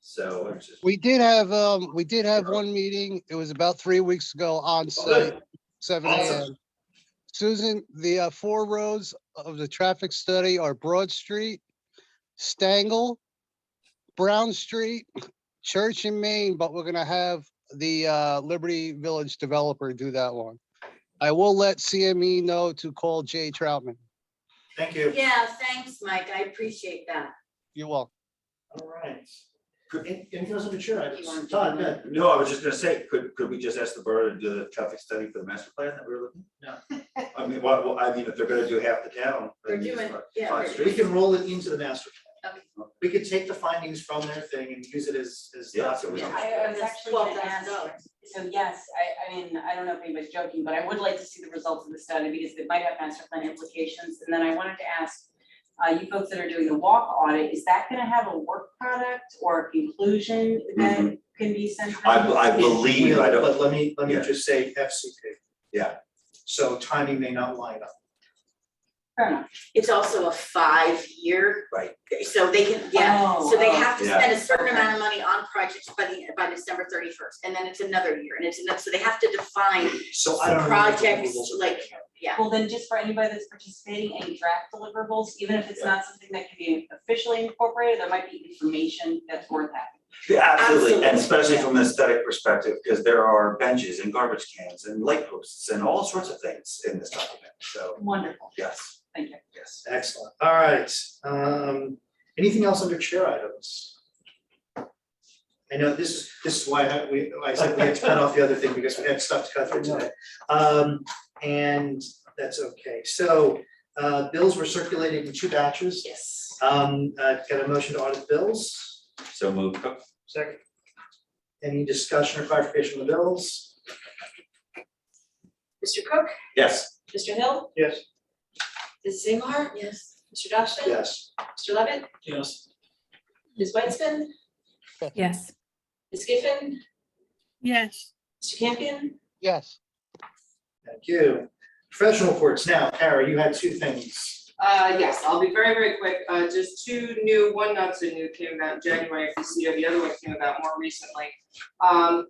So it's just. We did have, um, we did have one meeting. It was about three weeks ago on site, seven Awesome. AM. Susan, the uh, four roads of the traffic study are Broad Street, Stangle, Brown Street, Church and Main, but we're gonna have the, uh, Liberty Village developer do that one. I will let CME know to call Jay Troutman. Thank you. Yeah, thanks, Mike. I appreciate that. You're welcome. All right. Any any thoughts on the chair? You want to- Todd, Ben? No, I was just gonna say, could, could we just ask the borough to do the traffic study for the master plan that we were looking? No. I mean, what, what- I mean, if they're gonna do half the town. They're then you just doing- want yeah, five they're- we streets. can roll it into the master plan. Okay. We could take the findings from their thing and use it as, as. Yeah, so we document. don't- I I was actually gonna $12,000. ask, so yes, I I mean, I don't know if anybody's joking, but I would like to see the results of the study because it might have master plan implications. And then I wanted to ask, uh you folks that are doing the walk audit, is that gonna have a work product or a conclusion that can be sent Mm-hmm. I, out? I believe, I don't, But let me, let me Yeah. just say FCP. Yeah. So timing may not line up. Fair enough. It's also a five-year. Right. So they can, yeah, Oh, so they oh. have to Yeah. spend a certain amount of money on projects by the, by December thirty-first, and then it's another year, and it's another, so they have to define, So I don't know. what the Projects, rules are. like- yeah. Well, then just for anybody that's participating, any draft deliverables, even if it's not something that can be officially incorporated, there might be information that's worth having. Yeah, absolutely, and Absolutely. especially from an aesthetic perspective, because there are benches and garbage cans and light posts and all sorts of things in this document, so, Wonderful, yes, thank you. yes. Excellent. All right. Um, anything else under chair items? I know this is, this is why I, we, I said we had to cut off the other thing because we had stuff to cut through today. Um, and that's okay. So, uh, bills were circulated in two batches. Yes. Um, uh, got a motion to audit bills. So move. Second. Any discussion or clarification on the bills? Mr. Cook, Yes. Mr. Hill, Yes. Ms. Zingler, Yes. Mr. Dashna. Yes. Mr. Levitt, Yes. Ms. Weitzman, Yes. Ms. Giffen, Yes. Mr. Campion. Yes. Thank you. Professional reports. Now, Kara, you had two things. Uh, yes, I'll be very, very quick. Uh, just two new, one not so new came about in January of this year, the other one came about more recently. Um,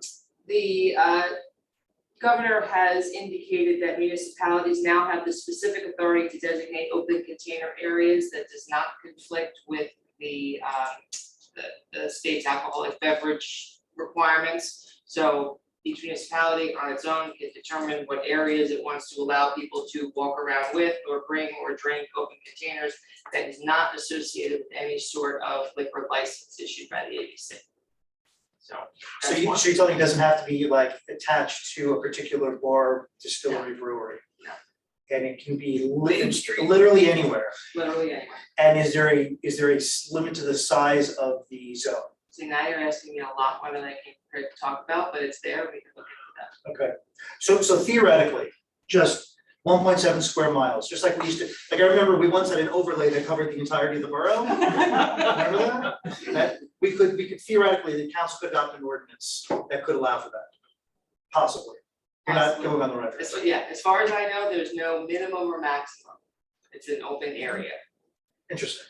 the, uh, governor has indicated that municipalities now have the specific authority to designate open container areas that does not conflict with the, um, the, the state's alcoholic beverage requirements. So each municipality on its own can determine what areas it wants to allow people to walk around with or bring or drink open containers that is not associated with any sort of liquor license issued by the ABC. So. So that's you, one. so you tell me it doesn't have to be like attached to a particular bar, distillery, brewery? No. And it can be lit- Industry. literally anywhere, Literally anywhere. and is there a, is there a s- limit to the size of the zone? See, now you're asking me a lot more than I can prepare to talk about, but it's there, we can look into Okay, so so theoretically, just one point seven square miles, just like we used to, like I remember we once had an overlay that covered the entirety of the borough. Remember that? That, we could, we could theoretically, the council could adopt an ordinance that could allow for that, possibly. We're not Possibly. going on the record. that. As- yeah, as far as I know, there's no minimum or maximum. It's an open area. Interesting.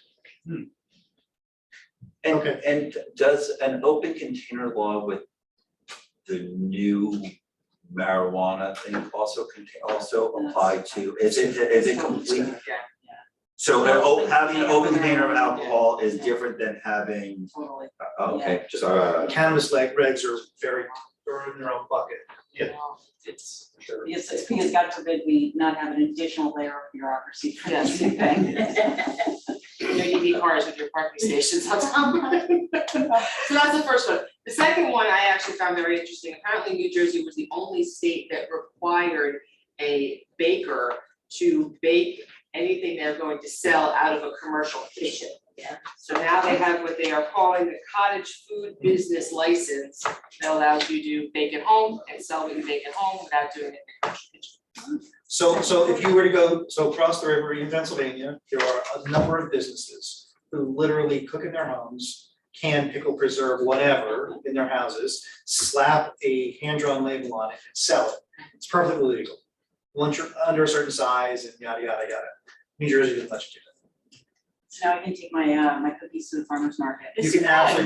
And, Okay. and does an open container law with the new marijuana thing also contain, also apply to, is it, is it complete? Yeah. So an o- Open having an open container. container of alcohol is Yeah. different than having, Totally. oh, okay, just, uh, cannabis leg regs are very, are in their own bucket. Yeah. Well, It's, Yes, it's because God forbid we not have an additional layer of bureaucracy for this Yes. thing. you know, you need cars with your parking stations on top of it. So that's the first one. The second one I actually found very interesting. Apparently New Jersey was the only state that required a baker to bake anything they're going to sell out of a commercial kitchen. Yeah. So now they have what they are calling the cottage food business license that allows you to bake at home and sell what you bake at home without doing it in a commercial kitchen. So, so if you were to go, so across the river in Pennsylvania, there are a number of businesses who literally cook in their homes, can pickle, preserve, whatever, in their houses, slap a hand-drawn label on it and sell it. It's perfectly legal. Once you're under a certain size and yada, yada, yada. New Jersey didn't let you do So now I can take my, uh, my cookies to the farmer's market. that. You can absolutely